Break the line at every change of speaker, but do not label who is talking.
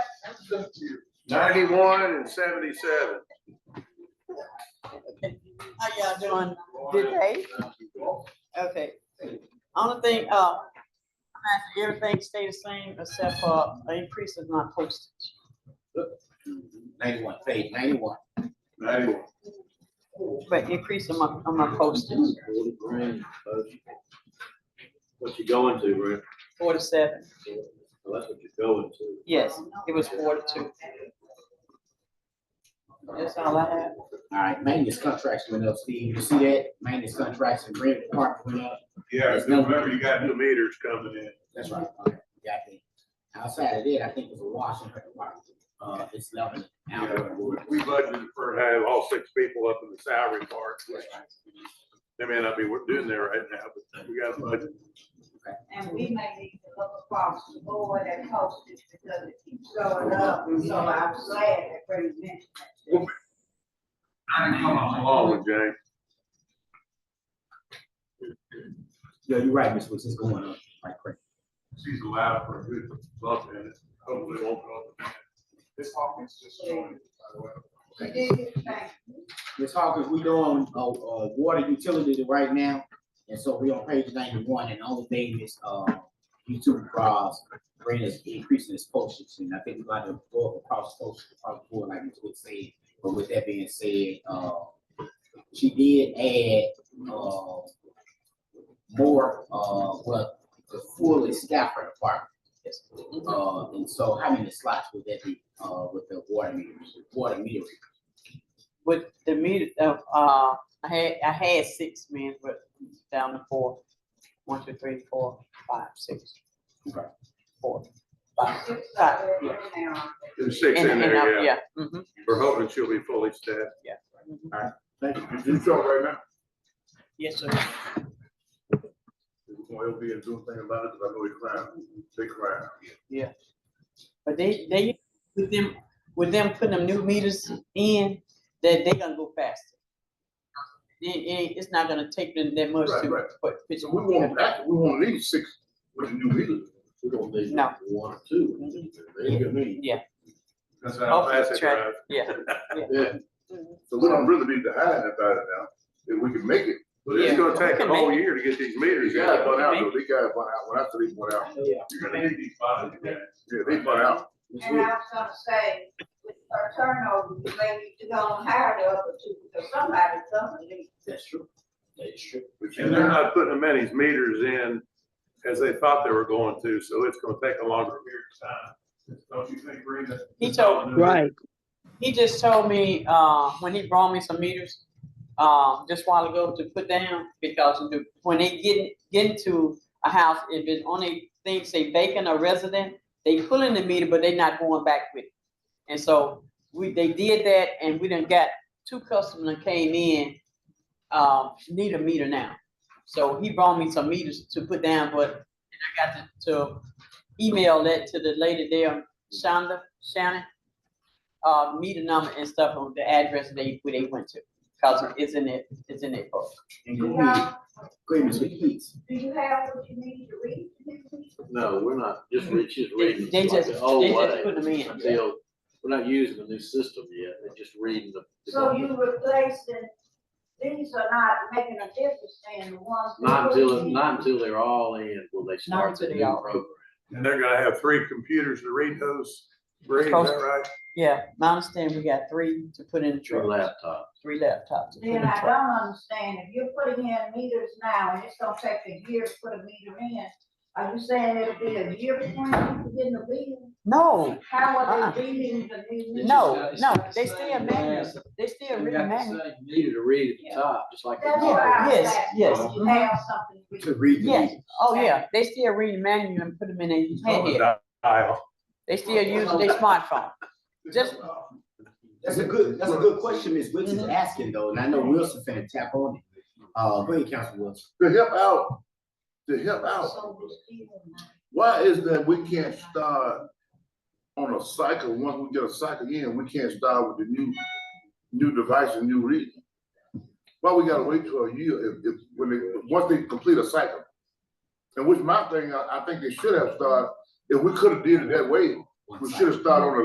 ninety-one and seventy-seven.
How y'all doing? Good day. Okay. Only thing, uh, I'm asking everything stay the same except for an increase of my postage.
Ninety-one, page ninety-one.
Ninety-one.
But increase on my, on my postage,
What you going to, Rick?
forty-seven.
Well, That's what you're going to.
Yes, it was forty-two. That's all I have.
All right, maintenance contracts went up, Steve, you see that? Maintenance contracts and rent department went up,
Yeah, 'cause remember you got new meters coming in.
that's right. Okay, got that. Outside of that, I think it was a wash and her department, uh, it's eleven.
Yeah, We budgeted for have all six people up in the salary part. which They may not be doing there right now, but we got a budget.
And we may need to look across the board at postage because it keeps going up, and so I'm glad that Freddie mentioned that.
Long, Jay.
Yeah, you're right, Miss Woods, it's going up like crazy.
She's allowed for a good bump in it. Hopefully it won't go up. This Hawkins just joined, by the way.
She did his thing.
Ms. Hawkins, we doing, uh, uh, water utility right now, and so we on page ninety-one, and the only thing is, uh, YouTube cross, rate is increasing its postage, and I think we got to go across postage, across the board, like Ms. Wood said, but with that being said, uh, she did add, uh, more, uh, well, the fully staffed her department. Uh, and so how many slots would that be, uh, with the water meter, water meter?
With the meter, uh, uh, I had, I had six men, but down to four. One, two, three, four, five, six.
Okay.
Four, five.
Six of them in there.
There's six in
And- and I-
there, yeah.
mhm.
We're hoping she'll be fully staffed.
Thank you.
You sure right now?
Yes, sir.
Oil being doing thing about it, 'cause I know he climbed, big climb.
But they, they, with them, with them putting them new meters in, that they gonna go faster. It, it, it's not gonna take them that much
Right,
to
right.
put. pitch-
So we won't, that- we won't need six with the new meters.
We don't need
No.
one or two. They ain't gonna need.
That's how
Oh,
fast
that's
it
right.
drives.
Yeah.
Yeah.
So we don't really be behind about it now, if we can make it. But it's
Yeah.
gonna take
We
a
can
whole
make
year to get these meters.
Yeah,
guys
we
went
can
out,
make
though. These guys went out, when I three went out.
Yeah.
You're gonna need these bodies, yeah. Yeah, they went out.
Ms.
And
Wood?
I was gonna say, with her turnover, you maybe you don't hire the other two, because somebody, somebody.
That's true. That is true.
And they're not putting as many meters in as they thought they were going to, so it's gonna take a longer period of time. Don't you think, Brenda?
He told-
Right.
He just told me, uh, when he brought me some meters, uh, just while ago to put down, because the- when they get, get into a house, if it's only thing say vacant or resident, they pulling the meter, but they not going back with it. And so we, they did that and we done got two customers that came in, um, need a meter now. So he brought me some meters to put down, but and I got to, to email that to the lady there, Shonda, Shannon uh, meter number and stuff on the address they, where they went to, cause it's in it, it's in it oh, book.
And
You
go
know,
ahead, go ahead, Ms. Wood, please.
do you have what you need to read?
No, we're not, just read, just
They
reading.
they
like oh,
just,
the old
they just
way
put them in.
Until, we're not using the new system yet, they're just reading the.
So you replacing, these are not making a difference in the ones. that
Not until,
we need.
not until they're all in, will they start the
until
new
they all-
program.
And they're gonna have three computers to read those, Brenda, is that right?
Yeah, my understanding, we got three to put in the
Your
truck,
laptop.
three laptops. to put in
Then
the
I
truck.
don't understand, if you're putting in meters now, and it's gonna take a year to put a meter in, are you saying it'll be a year before you get in the bill?
No,
How
Uh-uh.
are they reading the new meter?
no, no, they still manuals, they still reading manuals.
Needed to read at the top, just like. the
That's why I
Yes,
was asking,
yes,
do you
mhm.
have something to
To
read?
read. the
Yes,
meeting.
oh yeah, they still reading manual and put them in their handheld,
Dial.
they still using their smartphone. Just-
That's a good, that's a good question Ms. Woods is asking though, and I know Wilson finna tap on it. Uh, go ahead, Council Wilson.
to help out, to help out.
So we're still-
Why is that we can't start uh, on a cycle, once we get a cycle in, we can't start with the new, new device and new reading? Why we gotta wait till a year if, if, when they, once they complete a cycle? And which my thing, I, I think they should have started, if we could have did it that way, we should have started on a